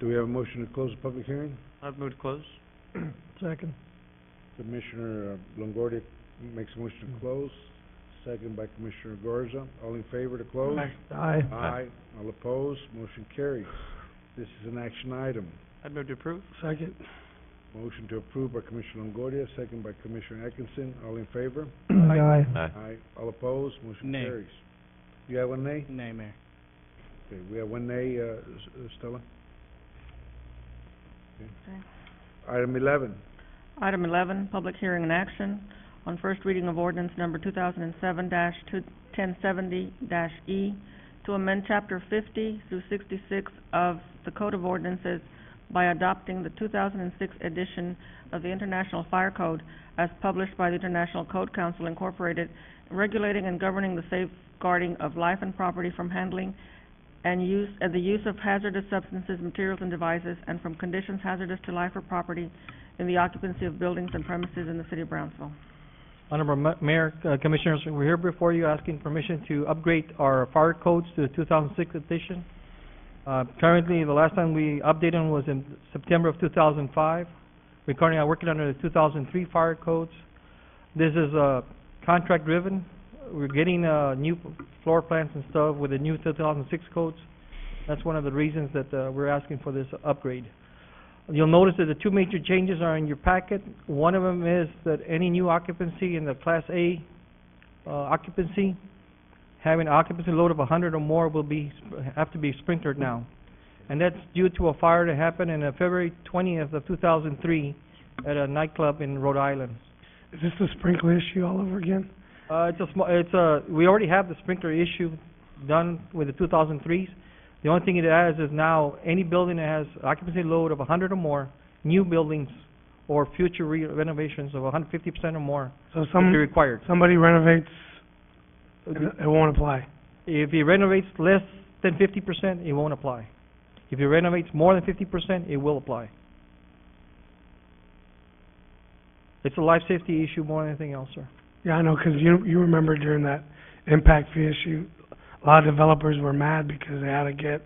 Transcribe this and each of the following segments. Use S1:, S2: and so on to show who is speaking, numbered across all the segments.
S1: Do we have a motion to close the public hearing?
S2: I've moved close.
S3: Second.
S1: Commissioner uh, Longoria makes a motion to close, second by Commissioner Garza. All in favor to close?
S3: Aye.
S1: Aye. All opposed, motion carries. This is an action item.
S2: I've moved to approve.
S3: Second.
S1: Motion to approve by Commissioner Longoria, second by Commissioner Atkinson. All in favor?
S3: Aye.
S4: Aye.
S1: Aye. All opposed, motion
S2: Nay.
S1: carries. You have one nay?
S2: Nay, Mayor.
S1: Okay, we have one nay, uh, S- uh, Stella? Okay. Item eleven,
S5: Item eleven, public hearing and action on first reading of ordinance number two thousand and seven dash two, ten seventy dash E to amend chapter fifty through sixty-six of the Code of Ordinances by adopting the two thousand and six edition of the International Fire Code as published by the International Code Council Incorporated, regulating and governing the safeguarding of life and property from handling and use, and the use of hazardous substances, materials, and devices, and from conditions hazardous to life or property in the occupancy of buildings and premises in the city of Brownsville.
S3: Honorable Ma- Mayor, uh, Commissioners, we're here before you asking permission to upgrade our fire codes to the two thousand six edition. Uh, currently, the last time we updated them was in September of two thousand five. We're currently are working under the two thousand three fire codes. This is, uh, contract driven. We're getting, uh, new floor plans and stuff with the new two thousand six codes. That's one of the reasons that, uh, we're asking for this upgrade. You'll notice that the two major changes are in your packet. One of them is that any new occupancy in the Class A uh, occupancy, having occupancy load of 100 or more will be, have to be sprinkled now. And that's due to a fire that happened in uh, February 20th of 2003 at a nightclub in Rhode Island.
S6: Is this the sprinkler issue all over again?
S3: Uh, it's a small, it's a, we already have the sprinkler issue done with the two thousand threes. The only thing it adds is now, any building that has occupancy load of hundred or more, new buildings or future re- renovations of hundred fifty percent or more
S6: So
S3: will be
S6: some,
S3: required.
S6: somebody renovates and it won't apply.
S3: If he renovates less than fifty percent, it won't apply. If he renovates more than fifty percent, it will apply. It's a life safety issue more than anything else, sir.
S6: Yeah, I know, 'cause you, you remember during that impact fee issue, a lot of developers were mad because they had to get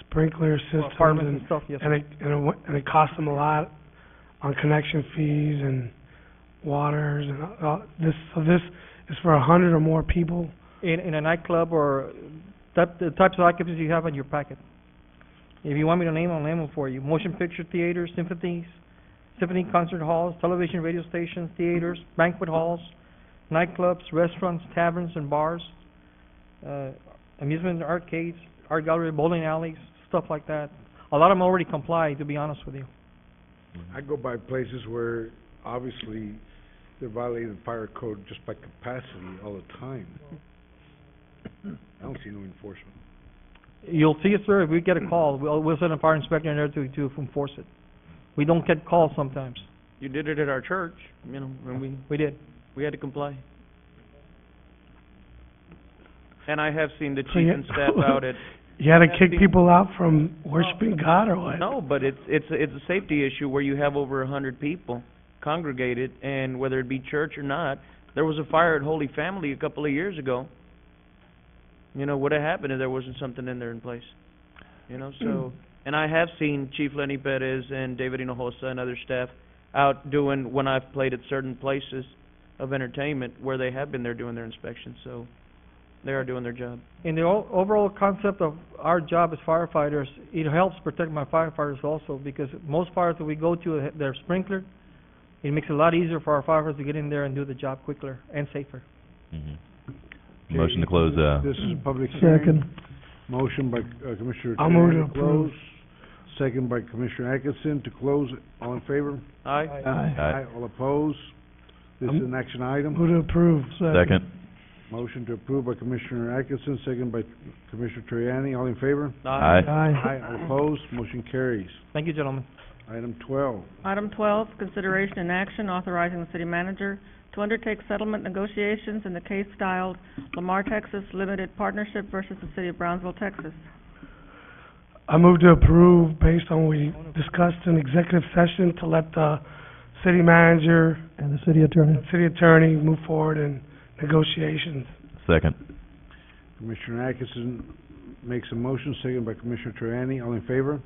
S6: sprinkler systems
S3: Apartments and
S6: and,
S3: stuff, yes, sir.
S6: and it, and it, wa- and it cost them a lot on connection fees and waters and, uh, this, so this is for a hundred or more people.
S3: in, in a nightclub or type, the types of occupancies you have on your packet. If you want me to name them, I'll name them for you. Motion picture theaters, symphonies, symphony concert halls, television, radio stations, theaters, banquet halls, nightclubs, restaurants, taverns and bars, uh, amusement arcades, art gallery, bowling alleys, stuff like that. A lot of them already comply, to be honest with you.
S1: I go by places where obviously they're violating the fire code just by capacity all the time. I don't see no enforcement.
S3: You'll see it, sir, if we get a call, we'll, we'll send a fire inspector in there to, to enforce it. We don't get calls sometimes.
S2: You did it at our church, you know, when we,
S3: We did.
S2: we had to comply. And I have seen the
S6: So
S2: chief
S6: you-
S2: and staff out at,
S6: You had to
S2: That's the-
S6: kick people out from worshiping God or what?
S2: no, but it's, it's, a- it's a safety issue where you have over a hundred people congregated, and whether it be church or not, there was a fire at Holy Family a couple of years ago. You know, would've happened if there wasn't something in there in place, you know, so, and I have seen Chief Lenny Perez and David Hinojosa and other staff out doing, when I've played at certain places of entertainment, where they have been there doing their inspections, so they are doing their job.
S3: in the o- overall concept of our job as firefighters, it helps protect my firefighters also because most fires that we go to, eh, they're sprinkler. It makes it a lot easier for our firefighters to get in there and do the job quicker and safer.
S4: Mhm. Motion to close, uh,
S1: This is a public hearing. Motion by uh, Commissioner
S6: I'll move
S1: Tejeda
S6: to
S1: close,
S6: approve.
S1: second by Commissioner Atkinson to close. All in favor?
S2: Aye?
S6: Aye.
S4: aye.
S1: All opposed? This is an action item.
S6: Um, Who to approve?
S4: Second,
S1: Motion to approve by Commissioner Atkinson, second by Commissioner Terriani. All in favor?
S4: aye.
S1: Aye. All opposed? Motion carries.
S3: Thank you, gentlemen.
S1: Item twelve.
S5: Item twelve, consideration and action authorizing the city manager to undertake settlement negotiations in the case styled Lamar Texas Limited Partnership versus the city of Brownsville, Texas.
S6: I move to approve based on what we discussed in executive session to let the city manager. And the city attorney. City attorney move forward in negotiations.
S4: Second,
S1: Commissioner Atkinson makes a motion, second by Commissioner Terriani. All in favor?